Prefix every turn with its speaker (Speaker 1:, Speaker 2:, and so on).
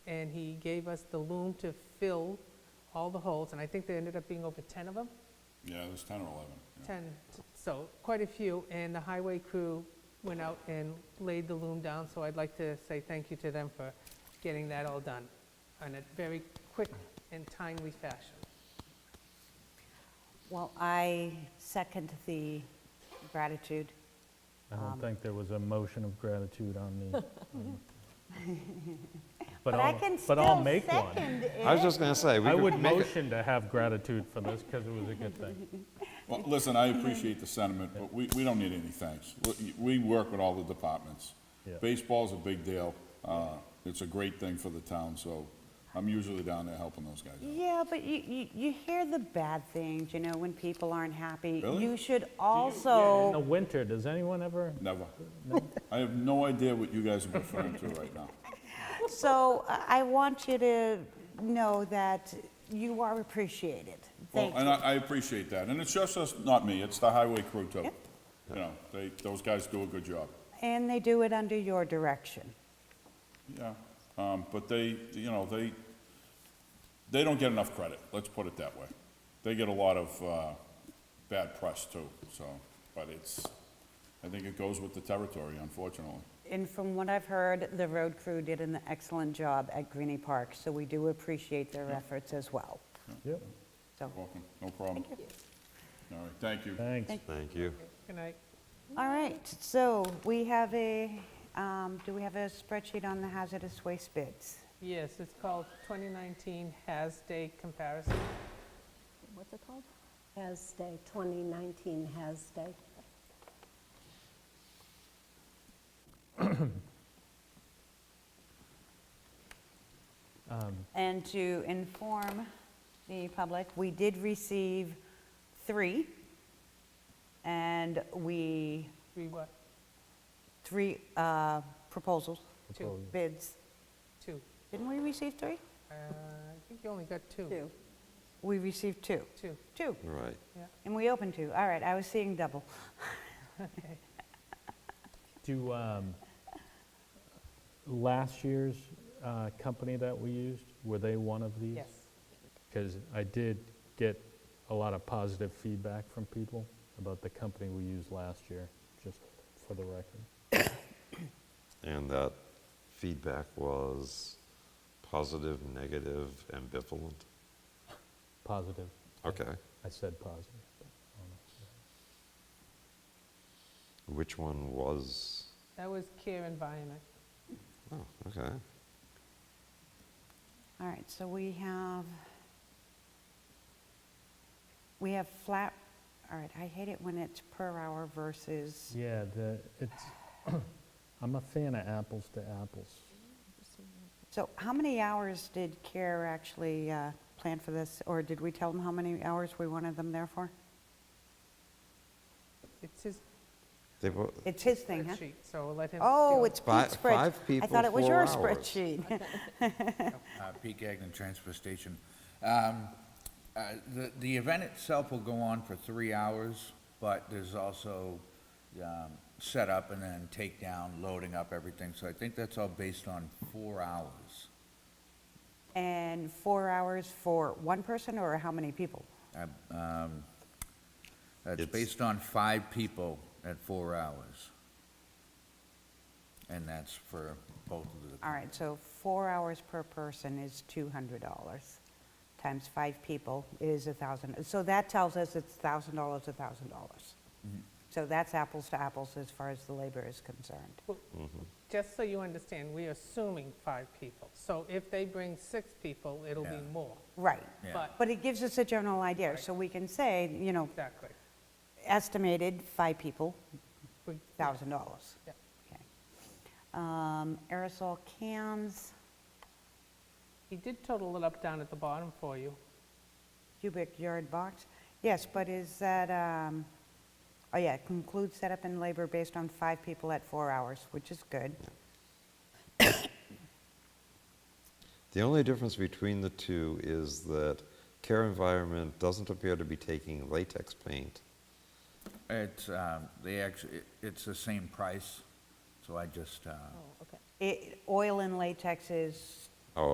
Speaker 1: gave us the loom to fill all the holes, and I think there ended up being over 10 of them,
Speaker 2: Yeah, it was 10 or 11. yeah.
Speaker 1: 10, so quite a few, and the highway crew went out and laid the loom down, so I'd like to say thank you to them for getting that all done in a very quick and timely fashion.
Speaker 3: Well, I second the gratitude.
Speaker 4: I
Speaker 3: Um,
Speaker 4: don't think there was a motion of gratitude on the. on- But
Speaker 3: I
Speaker 4: I'll-
Speaker 3: can
Speaker 4: But I'll
Speaker 3: still
Speaker 4: make one.
Speaker 3: second
Speaker 5: I was
Speaker 3: it.
Speaker 5: just going to say, we
Speaker 4: I
Speaker 5: could
Speaker 4: would
Speaker 5: make it-
Speaker 4: motion to have gratitude for this because it was a good thing.
Speaker 2: Well, listen, I appreciate the sentiment, but we, we don't need any thanks. We- We work with all the departments.
Speaker 4: Yeah.
Speaker 2: Baseball's a big deal. Uh, It's a great thing for the town, so I'm usually down there helping those guys out.
Speaker 3: Yeah, but you, you, you hear the bad things, you know, when people aren't happy.
Speaker 2: Really?
Speaker 3: You should
Speaker 4: In the
Speaker 3: also,
Speaker 4: winter, does anyone ever,
Speaker 2: Never. I have no idea what you guys are referring to right now.
Speaker 3: so I I want you to know that you are appreciated.
Speaker 2: Well,
Speaker 3: Thank
Speaker 2: and I,
Speaker 3: you.
Speaker 2: I appreciate that, and it's just us, not me, it's the highway crew too.
Speaker 3: Yep.
Speaker 2: You know, they, those guys do a good job.
Speaker 3: And they do it under your direction.
Speaker 2: Yeah, um, but they, you know, they, they don't get enough credit, let's put it that way. They get a lot of, uh, bad press too, so, but it's, I think it goes with the territory, unfortunately.
Speaker 3: And from what I've heard, the road crew did an excellent job at Greenie Park, so we do appreciate their efforts as well.
Speaker 4: Yep.
Speaker 3: So,
Speaker 2: Welcome, no problem. All right, thank you.
Speaker 4: thanks.
Speaker 5: Thank you.
Speaker 1: Good night.
Speaker 3: all right, so we have a, um, do we have a spreadsheet on the hazardous waste bids?
Speaker 1: Yes, it's called 2019 Has Day Comparison.
Speaker 6: what's it called? Has Day, 2019 Has Day.
Speaker 3: And to inform the public, we did receive three, and we,
Speaker 1: Three what?
Speaker 3: three uh, proposals,
Speaker 1: Two,
Speaker 3: bids.
Speaker 1: two.
Speaker 3: Didn't we receive three?
Speaker 1: Uh, I think you only got two.
Speaker 3: We received two.
Speaker 1: Two,
Speaker 3: Two,
Speaker 5: Right.
Speaker 3: and we opened two. All right, I was seeing double.
Speaker 1: okay.
Speaker 4: Do, um, last year's uh, company that we used, were they one of these?
Speaker 1: Yes,
Speaker 4: Because I did get a lot of positive feedback from people about the company we used last year, just for the record.
Speaker 5: And that feedback was positive, negative, ambivalent.
Speaker 4: Positive.
Speaker 5: Okay.
Speaker 4: I said positive. but I don't know.
Speaker 5: Which one was?
Speaker 1: that was Care Environment.
Speaker 5: Oh, okay.
Speaker 3: All right, so we have, we have flat, all right, I hate it when it's per hour versus,
Speaker 4: Yeah, the, it's, I'm a fan of apples to apples.
Speaker 3: so how many hours did CARE actually uh, plan for this? Or did we tell them how many hours we wanted them there for?
Speaker 1: It's his
Speaker 5: They were
Speaker 3: It's his thing, huh?
Speaker 1: spreadsheet, so we'll let him.
Speaker 3: Oh,
Speaker 1: deal.
Speaker 3: it's
Speaker 5: Fi-
Speaker 3: Pete's spreadsheet.
Speaker 5: five
Speaker 3: I
Speaker 5: people,
Speaker 3: thought it was
Speaker 5: four
Speaker 3: your
Speaker 5: hours.
Speaker 3: spreadsheet.
Speaker 7: Uh, Pete Gagnon, Transfer Station. Um, uh, The the event itself will go on for three hours, but there's also um, setup and then takedown, loading up everything. So I think that's all based on four hours,
Speaker 3: And four hours for one person or how many people?
Speaker 7: That's
Speaker 5: It's-
Speaker 7: based on five people at four hours. And that's for both of the...
Speaker 3: All right, so four hours per person is $200, times five people is 1,000. So that tells us it's $1,000, $1,000. So that's apples to apples as far as the labor is concerned.
Speaker 1: Just so you understand, we are assuming five people. So if they bring six people, it'll be
Speaker 7: Yeah.
Speaker 1: more.
Speaker 3: Right.
Speaker 7: Yeah.
Speaker 1: But,
Speaker 3: But it gives us a general idea, so we can say, you know,
Speaker 1: exactly.
Speaker 3: estimated five people,
Speaker 1: We-
Speaker 3: $1,000.
Speaker 1: Yeah.
Speaker 3: Okay. Um, Aerosol cans,
Speaker 1: He did total it up down at the bottom for you.
Speaker 3: cubic yard box. Yes, but is that, um, oh yeah, conclude setup and labor based on five people at four hours, which is good.
Speaker 5: The only difference between the two is that Care Environment doesn't appear to be taking latex paint.
Speaker 7: It's, um, they actually, it's the same price, so I just, uh,
Speaker 6: okay.
Speaker 3: It- Oil and latex is